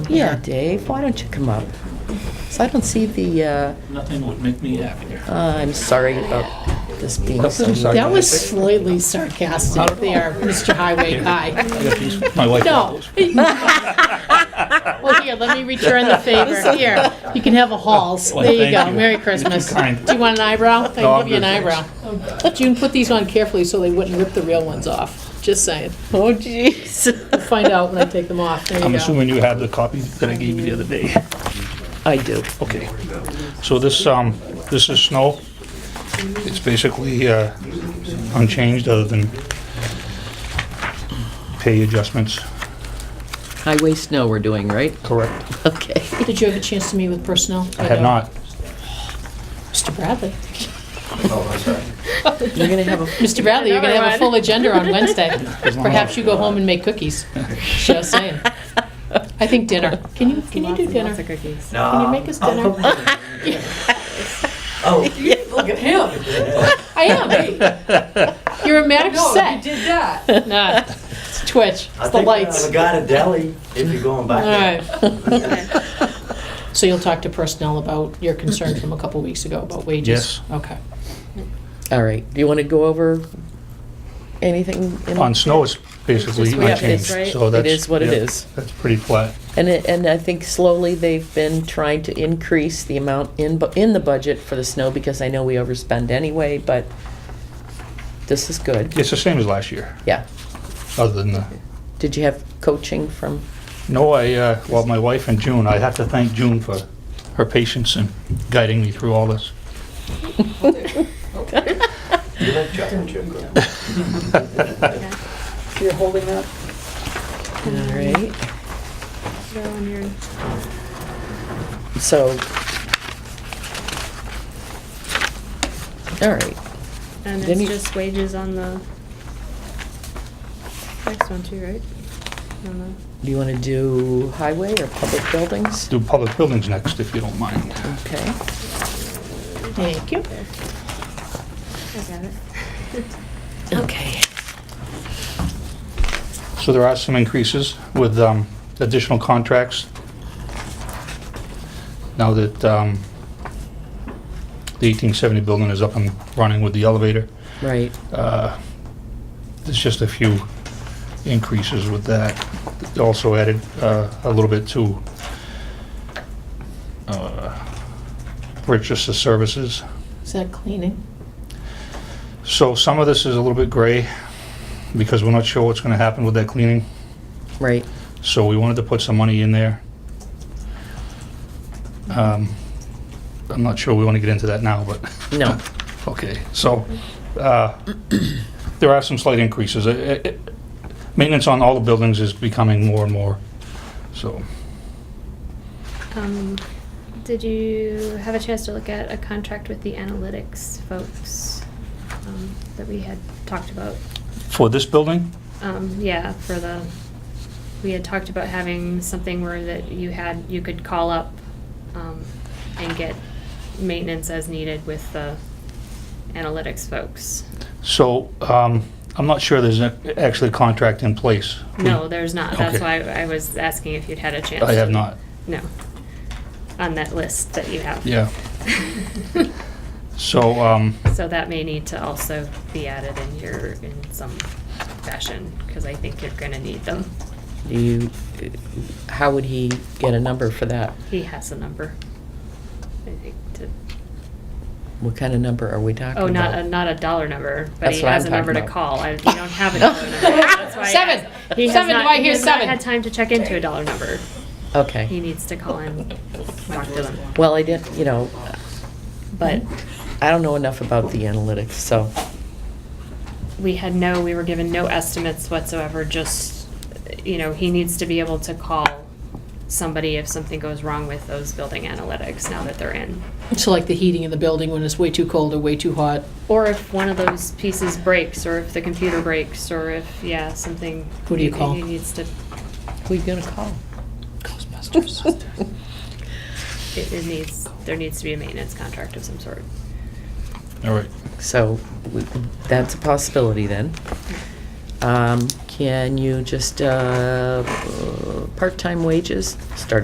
Yeah, Dave, why don't you come up? So I don't see the, uh, Nothing would make me happier. I'm sorry about this being so... That was slightly sarcastic there, Mr. Highway Guy. I got these- My wife got Uh, No. those. Well, here, let me return the favor. Here, you can have a Halls. There you Thank go. you. Merry Christmas. You're too kind. Do you want an eyebrow? I No, can I'm give you an good, eyebrow. But you can put these on carefully so they wouldn't rip the real ones off. Just saying. Oh, jeez. I'll Find out when I take them off. There I'm you go. assuming you have the copy that I gave you the other day. I do. Okay. So this, um, this is snow. It's basically, uh, unchanged other than pay adjustments. Highway snow we're doing, right? Correct. Okay. Did you have a chance to meet with personnel? I have not. Mr. Bradley. You're going to have a... Mr. Bradley, you're going to have a full agenda on Wednesday. Perhaps you go home and make cookies. Just saying. I think dinner. Can you, can you do dinner? Can you make us dinner? Oh, Look at him. I am. You're a match No, you set. did that. Nah, it's Twitch. I It's the think we're lights. gonna have a guy to deli if you're going back All there. right. So you'll talk to personnel about your concern from a couple weeks ago about wages? Yes. Okay. All right, do you want to go over anything? in- On snow, it's basically Just we have this, right? unchanged, so It that's. is what it yeah, is. That's pretty flat. And, it- and I think slowly they've been trying to increase the amount in, bu- in the budget for the snow, because I know we overspend anyway, but this is good. It's the same as last year, Yeah. other than the, Did you have coaching from, no, I, uh, well, my wife and June, I have to thank June for her patience and guiding me through all this. You like chocolate chip cookies? You're holding up. all right? So. All right, And Then you- it's just wages on the next one too, right? I don't know. do you want to do highway or public buildings? Do public buildings next, if you don't mind. Okay. Thank you. I got it. Okay. So there are some increases with um, additional contracts. Now that um, the 1870 building is up and running with the elevator, Right, uh, there's just a few increases with that. Also added uh, a little bit to uh, purchase of services. Is that cleaning? So some of this is a little bit gray because we're not sure what's going to happen with that cleaning. right. So we wanted to put some money in there. Um, I'm not sure we want to get into that now, but, No, okay, so, uh, there are some slight increases. Uh, uh, Maintenance on all the buildings is becoming more and more, so, Um, did you have a chance to look at a contract with the analytics folks um, that we had talked about? for this building, Um, yeah, for the, we had talked about having something where that you had, you could call up, um, and get maintenance as needed with the analytics folks. so, um, I'm not sure there's a- actually a contract in place. No, there's not. That's why Okay. I was asking if you'd had a chance. I have to- not, No. On that list that you have. yeah. So, um, So that may need to also be added in your, in some fashion, because I think you're gonna need them. do you, how would he get a number for that? He has a number. I think to, What kind of number are we talking about? oh, not a, not a dollar number, but That's he what has a I'm talking number to about. call. I, you don't have a dollar number. That's why I Seven. asked. He has Seven, not- why he here's has not seven. Had time to check into a dollar number. He Okay. needs to call and talk to them. Well, I didn't, you know, But I don't know enough about the analytics, so, we had no, we were given no estimates whatsoever, just, you know, he needs to be able to call somebody if something goes wrong with those building analytics now that they're in. So like the heating in the building when it's way too cold or way too hot? Or if one of those pieces breaks, or if the computer breaks, or if, yeah, something. Who do you he- call? He needs to, who are you gonna call? Ghostbusters. it it needs, there needs to be a maintenance contract of some sort. all right, So, we- that's a possibility then. Um, Can you just, uh, uh, part-time wages, start